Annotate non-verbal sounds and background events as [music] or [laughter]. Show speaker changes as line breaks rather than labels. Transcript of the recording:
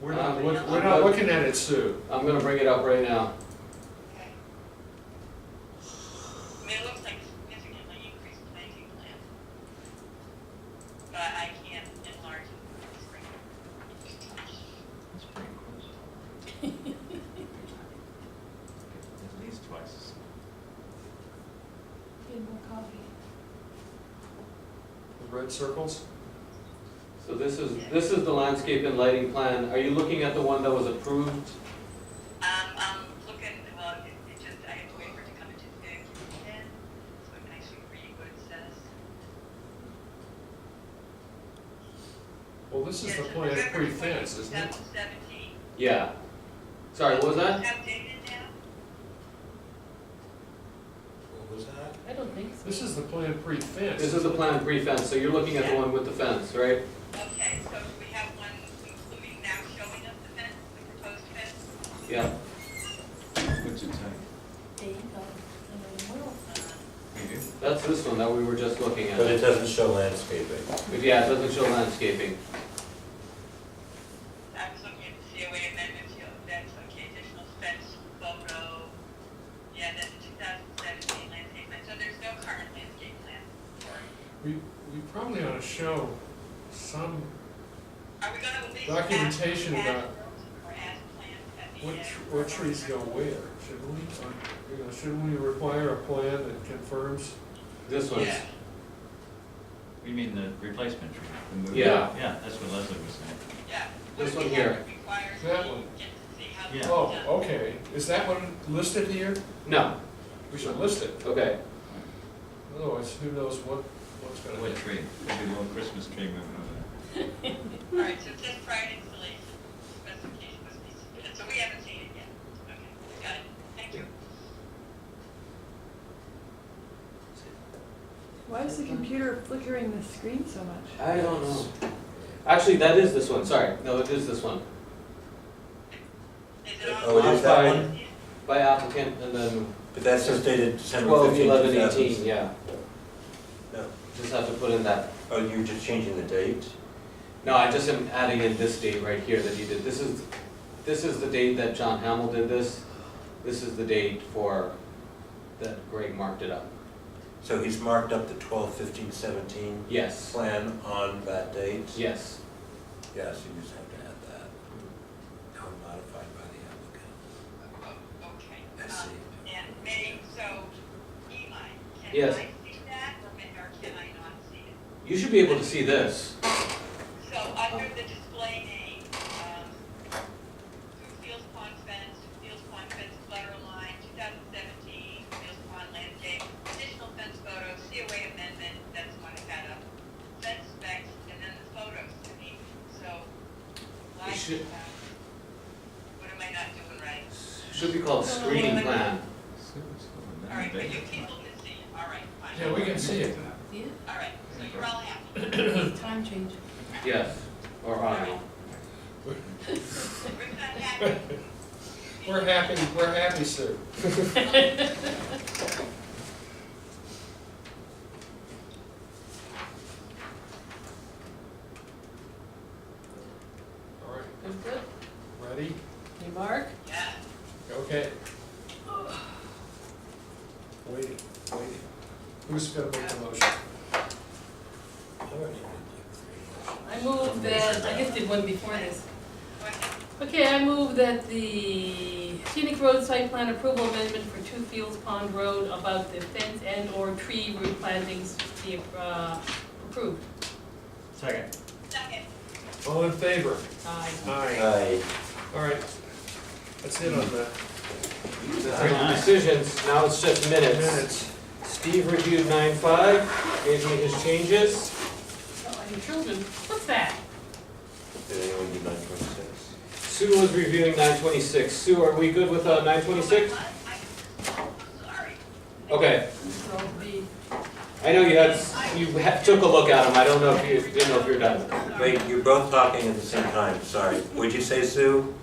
We're we're not looking at it, Sue.
I'm gonna bring it up right now.
Okay. I mean, it looks like significantly increased planting plan. But I can't enlarge it.
At least twice.
Need more coffee.
The Red circles?
So this is, this is the landscape and lighting plan. Are you looking at the one that was approved?
Um, I'm looking, well, it, it just, I have to wait for it to come into the commission, so I can actually read what it says.
Well, this is the
Yes,
plan
November
pre-fence, isn't it?
2017.
Yeah. Sorry, what was that?
Updated now?
What was that?
I don't think so.
This is the plan pre-fence.
This is the plan pre-fence, so you're looking at the one with the fence, right?
Okay, so do we have one including now showing us the fence, the proposed fence?
Yeah.
What's your time?
There you go. And then we'll-
Uh,
That's this one that we were just looking
But it
at.
doesn't show landscaping.
But yeah, it doesn't show landscaping.
I was looking at the COA amendments, you know, fence, okay, additional fence photo. Yeah, that's the two thousand seventeen landscape plan, so there's no current landscape plan.
We, we probably ought to show some,
Are we gonna at least? ask-
Documentation
ask
about-
Or ask plans at the
what,
end?
tr- what trees go where, shouldn't we? Or, You know, shouldn't we require a plan that confirms?
This one's,
Yeah.
You mean the replacement tree? the move-
Yeah.
Yeah, that's what Leslie was saying.
Yeah.
This
Would
one
we
here.
have to require
That
the-
one.
Just to see how.
Yeah.
it's
Oh,
done?
okay, is that one listed here?
no,
We should list it,
okay.
otherwise who knows what, what's gonna
What
happen.
tree? Could be a little Christmas tree moving over there.
All right, so it says prior installation specification must be submitted, so we haven't seen it yet. Okay, got it, thank you.
Why is the computer flickering the screen so much?
I don't know. Actually, that is this one, sorry. No, it is this one.
Is it on?
Oh, it is that one?
By applicant and then
But that's just dated December
12,
15,
11,
2000.
18, yeah.
No.
Just have to put in that.
Oh, you were just changing the date?
No, I just am adding in this date right here that you did. This is, this is the date that John Hamill did this. This is the date for, that Greg marked it up.
So he's marked up the 12, 15, 17
Yes,
plan on that date?
yes.
Yes, you just have to add that. Now modified by the
Oh, Okay.
I see.
Um, And may, so Eli, can
Yes.
I see that or may- or can I not see it?
You should be able to see this.
So under the display name, um, Two Fields Pond Fence, Two Fields Pond Fence Letter Line, 2017, Fields Pond Landscape, additional fence photo, COA amendment, that's the one I had up. Fence specs, and then the photos to me, so. like,
should-
uh, What am I not doing right?
Should be called screening plan.
So it's over there.
All right, but you
They-
people can see it, all right, fine.
Yeah, we can see it.
Yeah,
All right, so you're all happy.
[coughs] [clears throat]
time change.
Yes, or I.
Rick's not
[laughs]
happy.
We're happy, we're happy, sir. [laughs] All right,
That's good.
ready?
Hey, Mark?
Yeah.
Okay. Waiting, waiting. Who's gonna make the motion?
applicant.
I move that, I guess did one before this.
What-
Okay, I move that the scenic road site plan approval amendment for Two Fields Pond Road about the fence and or tree root plantings be uh, approved.
Second.
Second.
All in favor?
Aye.
Aye.
Aye.
All right. That's it on the
Nice.
Decisions, now it's just minutes.
minutes.
Steve reviewed nine five, gave me his changes.
Oh, and children, what's that?
Did anyone do 926?
Sue was reviewing nine twenty-six. Sue, are we good with, uh, nine twenty-six?
Sorry.
Okay.
So the,
I know you had, you ha- took a look at them, I don't know if you, didn't know if you're done.
Sorry.
Wait, you're both talking at the same time, sorry. Would you say, Sue?